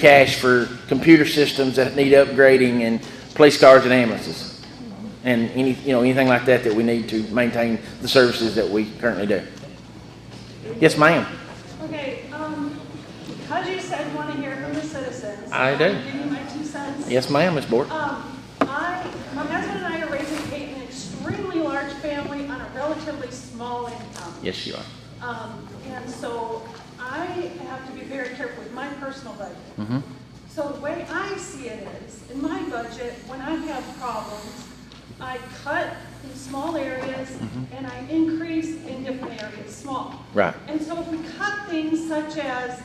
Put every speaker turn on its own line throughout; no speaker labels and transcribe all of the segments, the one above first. cash for computer systems that need upgrading and police cars and ambulances. And any, you know, anything like that that we need to maintain the services that we currently do. Yes, ma'am.
Okay, um, because you said want to hear from the citizens.
I do.
I'll Give you my two cents.
Yes, ma'am, Ms. Bork.
Um, I, my husband and I are raising Kate an extremely large family on a relatively small income.
Yes, you are.
Um, and so I have to be very careful with my personal budget.
Mhm.
So the way I see it is, in my budget, when I have problems, I cut in small areas and I increase in different areas, small.
Mm-hmm. Right.
And so if we cut things such as,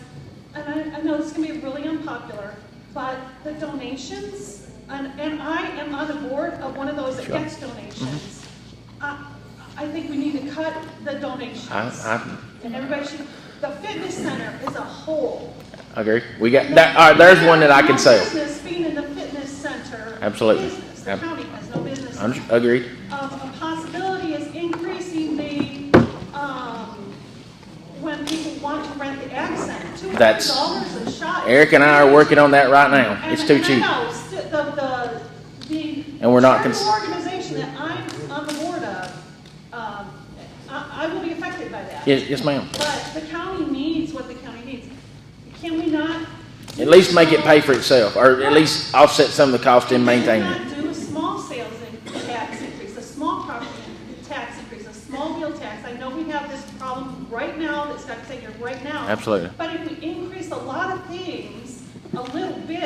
and I, I know this can be really unpopular, but the donations, and, and I am on the board of one of those
Sure. Mm-hmm.
X donations. I, I think we need to cut the donations.
I, I
And everybody should, the fitness center is a whole.
I agree. We got, that, all right, there's one that I can
say.
sell.
Business being in the fitness center.
Absolutely.
Business, the
Ab-
county has no business.
I'm, uh, agreed.
Um, a possibility is increasing the, um, when people want to rent the accent, two hundred
That's-
dollars a shot.
Eric and I are working on that right now.
And-
It's too
and I
cheap.
know, st- the- the- the
And we're not
charitable
cons-
Organization that I'm on the board of, um, I, I will be affected by that.
Yes, yes, ma'am.
But the county needs what the county needs. Can we not?
At least make it pay for itself, or at least offset some of the cost in maintaining it.
Can we not do a small sales in- tax increase, a small property tax increase, a small meal tax? I know we have this problem right now that's got to take care of right now.
Absolutely.
But if we increase a lot of things, a little bit,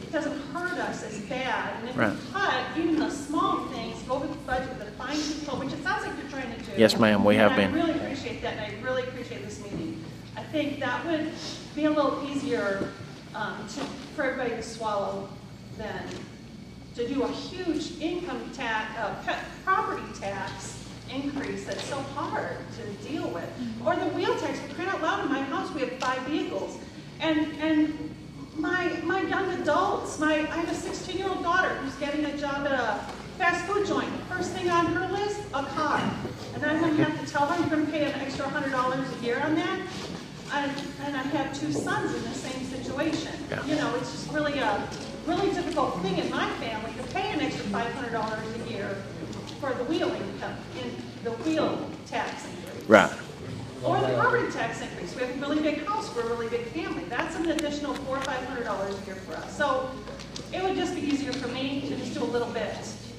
it doesn't hurt us as bad. And if
Right.
we cut even the small things, go with the budget with a fine control, which it sounds like you're trying to do.
Yes, ma'am, we have been.
And I really appreciate that, and I really appreciate this meeting. I think that would be a little easier um, to, for everybody to swallow than to do a huge income tax, uh, pe- property tax increase that's so hard to deal with. Or the wheel tax, for crying out loud, in my house, we have five vehicles. And, and my, my young adults, my, I have a sixteen-year-old daughter who's getting a job at a fast food joint. First thing on her list, a car. And I'm gonna have to tell her, you're gonna pay an extra hundred dollars a year on that? And, and I have two sons in the same situation.
Yeah.
You know, it's just really a, really difficult thing in my family to pay an extra five hundred dollars a year for the wheel income, in the wheel tax increase.
Right.
Or the property tax increase, we have a really big house, we're a really big family, that's an additional four, or five hundred dollars a year for us. So it would just be easier for me to just do a little bit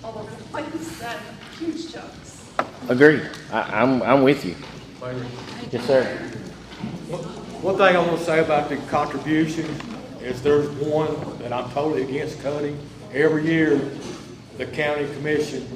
all over the place than huge chunks.
Agreed. I, I'm, I'm with you. Yes, sir.
One thing I want to say about the contribution is there's one that I'm totally against cutting. Every year, the county commission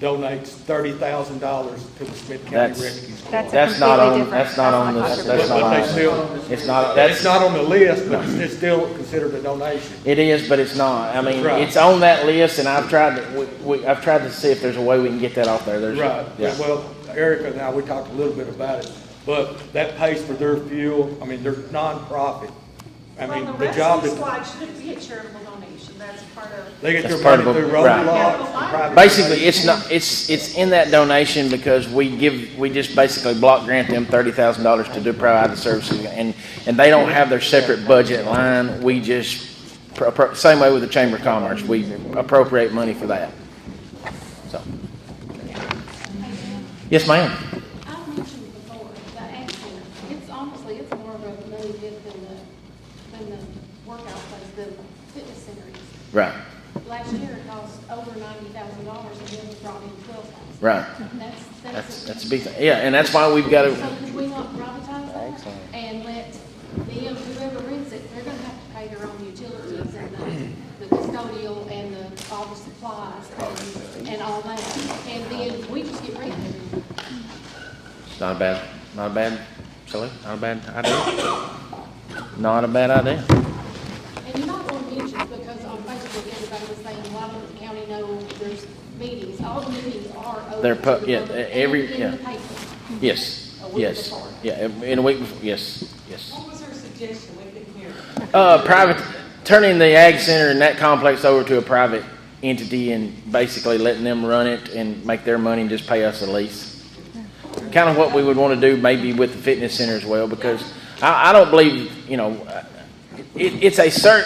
donates thirty thousand dollars to the Smith County
That's,
Rescue Squad.
That's a
that's not
completely
on,
different-
that's not on this, that's not
But
on.
they
this.
still-
It's not,
It's
that's,
not on the list, but it's still considered a donation.
it is, but it's not. I mean,
Right.
it's on that list and I've tried, to- we, we, I've tried to see if there's a way we can get that off there. There's.
Right,
Yeah.
well, Erica and I, we talked a little bit about it, but that pays for their fuel, I mean, they're nonprofit. I mean,
Well,
the job
rescue Squad
that,
shouldn't be a charitable donation, that's part of,
they get their
That's part
money
of
through
it, right.
road lots and private.
Basically, it's not, it's, it's in that donation because we give, we just basically block grant them thirty thousand dollars to do provide the services. And, and they don't have their separate budget line. We just, pro- pro- same way with the Chamber of Commerce, we appropriate money for that. So. Yes, ma'am.
I've mentioned before, the action, it's honestly, it's more of a money pit than the, than the workout place, the fitness center is.
Right,
Last year it cost over ninety thousand dollars and then we brought in twelve thousand.
right.
That's,
That's,
that's.
that's a big thing. Yeah, and that's why we've got
So
to,
could we not privatize that and let them, whoever rents it, they're gonna have to pay their own utilities and the, the custodial and the, all the supplies and, and all that. And then we just get rid of it.
not a bad, not a bad, silly, not a bad idea. Not a bad idea.
And you might want to mention, because on Facebook, everybody was saying, why don't the county know there's meetings? All the meetings are open.
They're pu-
to the
yeah,
public
every-
and in
yeah.
the paper.
Yes,
A week
yes,
before.
yeah, in a week before, yes, yes.
What was her suggestion? We didn't hear.
Uh, private, turning the ag center and that complex over to a private entity and basically letting them run it and make their money and just pay us a lease. Kind of what we would want to do maybe with the fitness center as well, because I, I don't believe, you know, uh, it, it's a certain